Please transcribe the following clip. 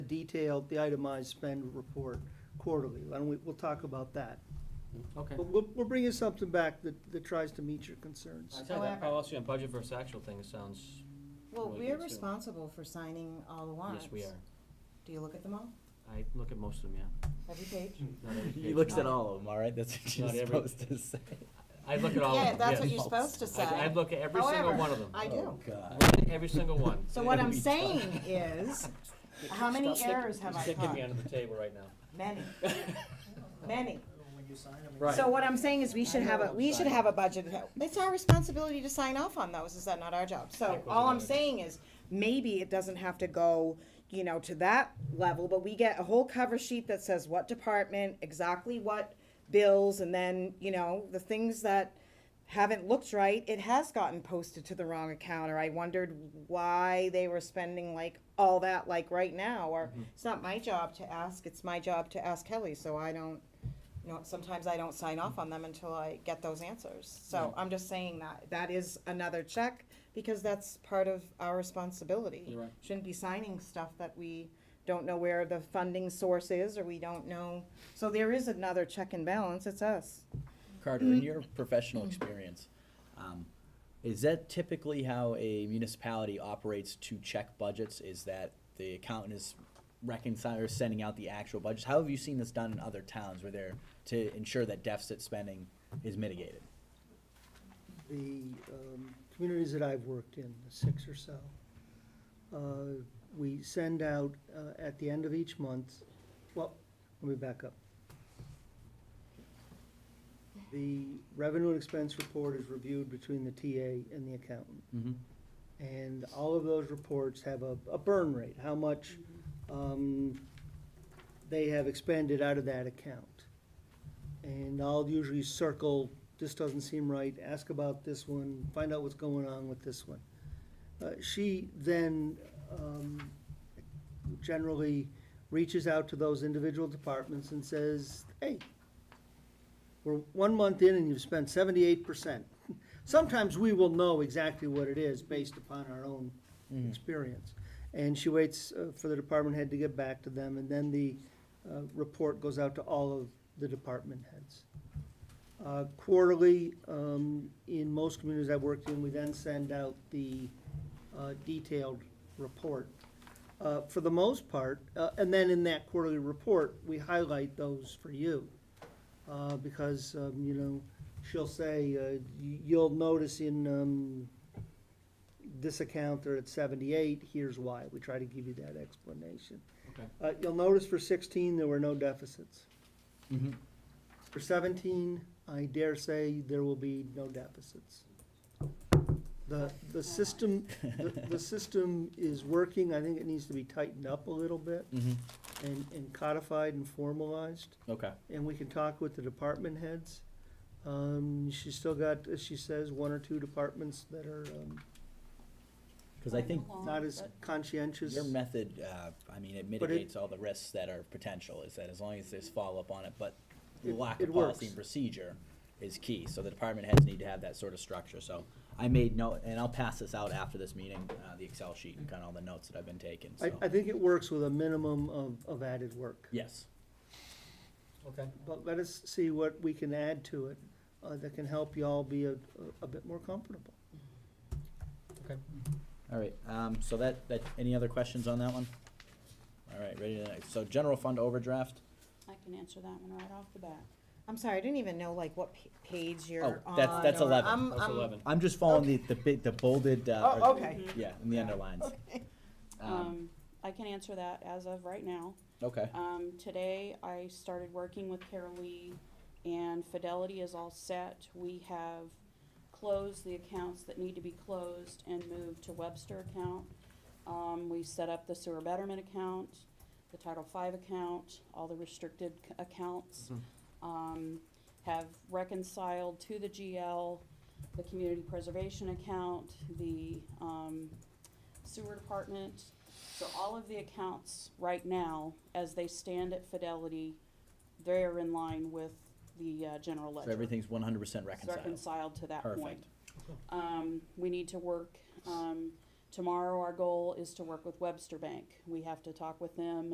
detailed, the itemized spend report quarterly. Why don't we, we'll talk about that. Okay. But we'll, we'll bring you something back that, that tries to meet your concerns. I said that However- policy on budget versus actual thing sounds, Well, Well, we're that's it. responsible for signing all the warrants. yes, we are. Do you look at them all? I look at most of them, yeah. Every page? Not every He page, looks no. at all of them, all right? That's what you're Not every- supposed to say. I look at all of Yeah, them, that's what yes. you're supposed to say. I, I look at every single However, one of them. I Oh, do. God. Look at Every single one. So what I'm Every saying is, how many errors have I Sticking me caught? under the table right now. Many, many. When you sign them. Right. So what I'm saying is we should I have know a, I'm we should sorry. have a budget. It's our responsibility to sign off on those, is that not our job? So That goes all on I'm it. saying is, maybe it doesn't have to go, you know, to that level, but we get a whole cover sheet that says what department, exactly what bills, and then, you know, the things that haven't looked right, it has gotten posted to the wrong account, or I wondered why they were spending like all that, like right now, or Mm-hmm. it's not my job to ask, it's my job to ask Kelly, so I don't, you know, sometimes I don't sign off on them until I get those answers. So I'm just saying that, that is another check, because that's part of our responsibility. You're right. Shouldn't be signing stuff that we don't know where the funding source is, or we don't know, so there is another check and balance, it's us. Carter, in your professional experience, um, is that typically how a municipality operates to check budgets? Is that the accountant is reconciling or sending out the actual budgets? How have you seen this done in other towns where they're to ensure that deficit spending is mitigated? the um, communities that I've worked in, the six or so, uh, we send out uh, at the end of each month, well, let me back up. The revenue and expense report is reviewed between the TA and the accountant. Mm-hmm. And all of those reports have a, a burn rate, how much, um, they have expended out of that account. And I'll usually circle, this doesn't seem right, ask about this one, find out what's going on with this one. Uh, she then, um, generally reaches out to those individual departments and says, hey, we're one month in and you've spent seventy-eight percent. Sometimes we will know exactly what it is based upon our own experience. And she waits uh, for the department head to get back to them, and then the uh, report goes out to all of the department heads. Uh, Quarterly, um, in most communities I've worked in, we then send out the uh, detailed report. uh, For the most part, uh, and then in that quarterly report, we highlight those for you uh, because, um, you know, she'll say, uh, y- you'll notice in, um, this account they're at seventy-eight, here's why. We try to give you that explanation. Okay. Uh, you'll notice for sixteen, there were no deficits. Mm-hmm. For seventeen, I dare say there will be no deficits. The, the system, the, the system is working. I think it needs to be tightened up a little bit Mm-hmm. and, and codified and formalized Okay. and we can talk with the department heads. Um, she's still got, as she says, one or two departments that are, um, Because I think Oh, not as conscientious. Your method, uh, I mean, it But it- mitigates all the risks that are potential, is that as long as there's follow-up on it, but the It- lack it of policy works. and procedure is key, so the department heads need to have that sort of structure, so I made note, and I'll pass this out after this meeting, uh, the Excel sheet and kind of all the notes that I've been taking, I, so, I think it works with a minimum of, of added work. yes. Okay. But let us see what we can add to it, uh, that can help y'all be a, a bit more comfortable. All right, um, so that, that, any other questions on that one? All right, ready to, so general fund overdraft, I can answer that one right off the bat. I'm sorry, I didn't even know like what pa- page you're Oh, on. that's- that's or- 11. I'm- That's I'm- eleven. I'm just following the, the big, the bolded, uh, Oh, or- okay. yeah, and the underlines. Um, Mm-hmm. Um, I can answer that as of right now. okay, Um, today, I started working with Carol Lee, and Fidelity is all set. We have closed the accounts that need to be closed and moved to Webster account. Um, we set up the sewer betterment account, the Title V account, all the restricted c- accounts. Mm-hmm. Mhm. Um, have reconciled to the GL, the community preservation account, the, um, sewer department. So all of the accounts right now, as they stand at Fidelity, they're in line with the, uh, general so ledger everything's one hundred percent reconciled. reconciled to that point. Perfect. Um, we need to work, um, tomorrow our goal is to work with Webster Bank. We have to talk with them